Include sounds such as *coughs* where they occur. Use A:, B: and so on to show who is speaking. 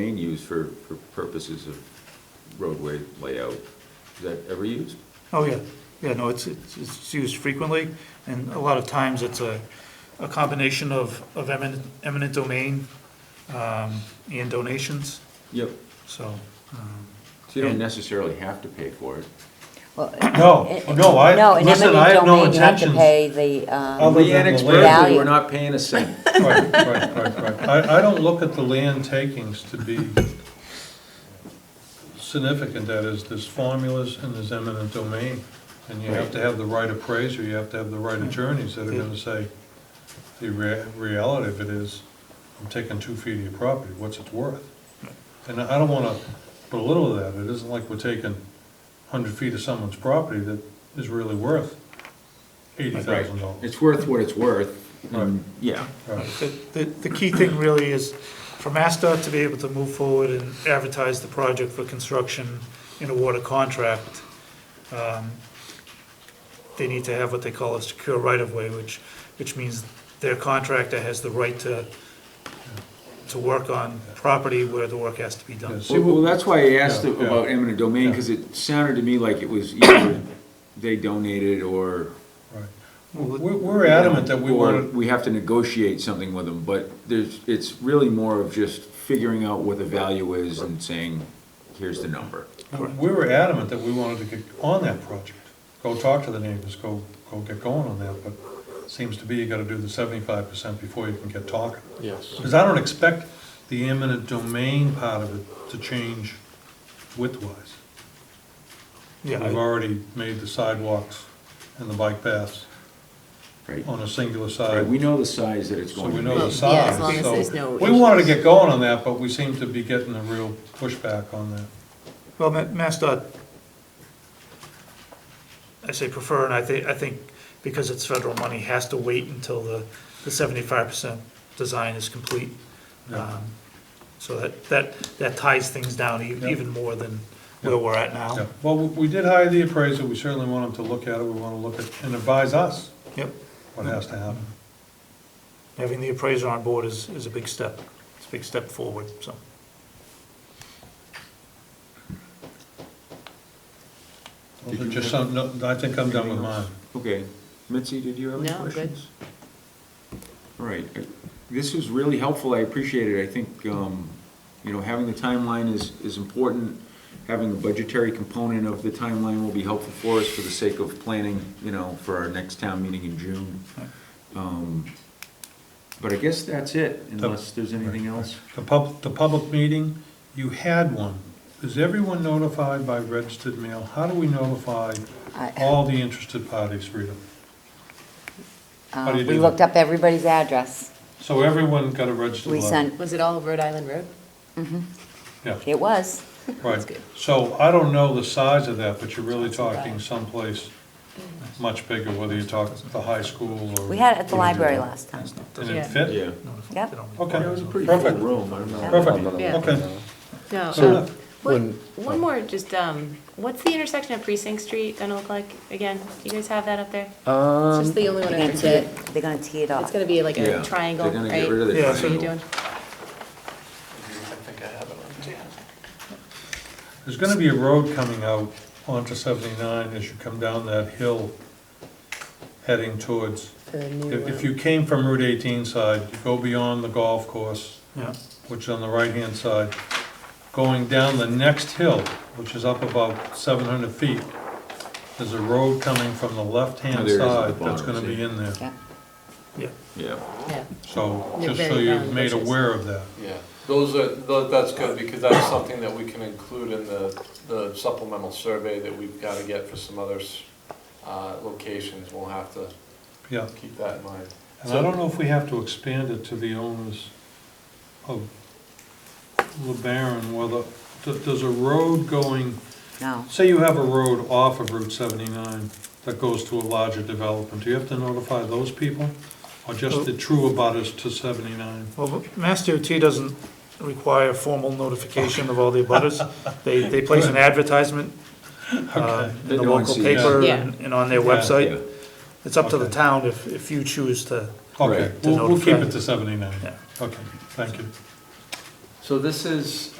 A: Being used for, for purposes of roadway layout, is that ever used?
B: Oh, yeah, yeah, no, it's, it's it's used frequently, and a lot of times it's a, a combination of, of eminent, eminent domain, um, and donations,
A: Yep.
B: so, um,
A: So you don't necessarily have to pay for it.
C: *coughs* No, no,
D: No,
C: I,
D: in
C: listen, I
D: eminent
C: have no
D: domain, you have to
C: intentions.
D: pay the, um,
C: Other
A: The
C: than
A: annex
C: the land.
A: Berkeley, we're
D: Value.
A: not paying a *laughs* cent.
C: Right, right, right, right. I, I don't look at the land takings to be significant, that is, there's formulas and there's eminent domain. And you have to have the right appraiser, you have to have the right attorneys that are gonna say, the rea- reality of it is, I'm taking two feet of your property, what's it worth? And I don't wanna belittle that, it isn't like we're taking hundred feet of someone's property that is really worth eighty thousand dollars.
A: It's worth what it's worth, and,
C: Right.
A: yeah.
B: the, the, the key thing really is for MassDOT to be able to move forward and advertise the project for construction in a water contract, um, they need to have what they call a secure right-of-way, which, which means their contractor has the right to, to work on property where the work has to be done.
C: Yes.
A: Well, well, that's why I asked
C: Yeah, yeah.
A: about eminent domain, because it sounded to me like it was either they donated or.
C: Right. We're we're adamant that we
A: or
C: want,
A: We have to negotiate something with them, but there's, it's really more of just figuring out what the value is and saying, here's the number.
C: we were adamant that we wanted to get on that project. Go talk to the neighbors, go, go get going on that, but it seems to be you gotta do the seventy-five percent before you can get talking. Yes. Because I don't expect the eminent domain part of it to change width-wise.
B: Yeah,
C: We've
B: I-
C: already made the sidewalks and the bike paths
A: Right.
C: on a singular
A: Right,
C: side.
A: we know the size that it's
C: So
A: going
C: we
A: to
C: know the
A: be.
E: Yeah, as
C: size,
E: long as there's
C: so,
E: no
C: we wanted to
E: issues.
C: get going on that, but we seem to be getting a real pushback on that.
B: well, Ma- MassDOT, I say prefer, and I think, I think because it's federal money, has to wait until the, the seventy-five percent design is complete.
C: Yeah.
B: Um, So that, that, that ties things down e-
C: Yeah.
B: even more than where we're at now.
C: Yeah, Well, we we did hire the appraiser, we certainly want him to look at it, we want to look at, and advise us
B: Yep,
C: what has to happen.
B: having the appraiser on board is, is a big step, it's a big step forward, so.
C: Those are Just some, no, I think I'm done with mine.
A: Okay, Mitzi, did you have any
E: No, I'm good.
A: questions? All right, I- this was really helpful, I appreciate it, I think, um, you know, having the timeline is, is important. Having the budgetary component of the timeline will be helpful for us for the sake of planning, you know, for our next town meeting in June. Um, But I guess that's it, unless there's anything
C: *laughs*
A: else.
C: The pub, the public meeting, you had one. Is everyone notified by registered mail? How do we notify
D: I-
C: all the interested parties, Rita? How
D: uh,
C: do you do
D: we
C: that?
D: looked up everybody's address.
C: So everyone got a registered
D: We
C: letter?
D: sent,
E: Was it all of Rhode Island Road?
C: Yeah,
D: it was,
E: That's
C: right.
E: good.
C: So I don't know the size of that, but you're really
E: That's all
C: talking
E: right.
C: someplace much bigger, whether you talk the high school or.
D: we had it at the
C: whatever.
D: library last time.
C: And it
E: Yeah.
C: fit?
D: Yep.
C: Okay.
A: It was a pretty full
C: Perfect.
A: room, I remember.
C: Perfect,
E: Yeah.
C: okay.
E: No.
C: So,
E: um, what- One more, just, um, what's the intersection of Precinct Street gonna look like again? Do you guys have that up there? It's just the only
D: They're
E: one I
D: gonna tee
E: forget.
D: it, they're gonna tee it
E: It's
D: off.
E: gonna be like
A: Yeah,
E: a triangle,
A: They're gonna get rid of
E: right?
A: the
B: Yeah,
E: That's what you're
A: triangle.
E: doing?
C: There's gonna be a road coming out onto seventy-nine as you come down that hill heading towards,
E: For the
C: if, if
E: new, uh,
C: you came from Route eighteen side, you go beyond the golf course,
B: Yeah,
C: which is on the right-hand side, going down the next hill, which is up about seven hundred feet, there's a road coming from the
A: Oh,
C: left-hand
A: there it is at the
C: side that's
A: bottom,
C: gonna be
A: see?
C: in there.
D: Yeah.
B: yeah,
A: Yeah.
E: um, yeah.
C: So,
E: They're
C: just so
E: very
C: you're
E: round
C: made
E: bushes.
C: aware of that.
F: Yeah, those are, tho- that's good, because that's something that we can include in the the supplemental survey that we've got to get for some other s- uh, locations. We'll have to
C: Yeah.
F: keep that in mind.
C: And I don't know if we have to expand it to the owners of LeBaron, whether, d- does a road going,
D: No,
C: say you have a road off of Route 79 that goes to a larger development, do you have to notify those people? Or just the true abutters to 79?
B: well, Mass DOT doesn't require formal notification of all the abutters. They, they place an advertisement uh, in
A: They
B: the
A: go and
B: local
A: see it.
B: paper
E: Yeah.
B: and and on their
C: Yeah.
A: Yeah.
B: website. It's up to the
C: Okay.
B: town if, if you choose to,
C: Okay,
A: Right.
C: we'll, we'll keep
B: To
C: it to 79.
B: Yeah.
C: Okay, thank you.
F: So this is, uh,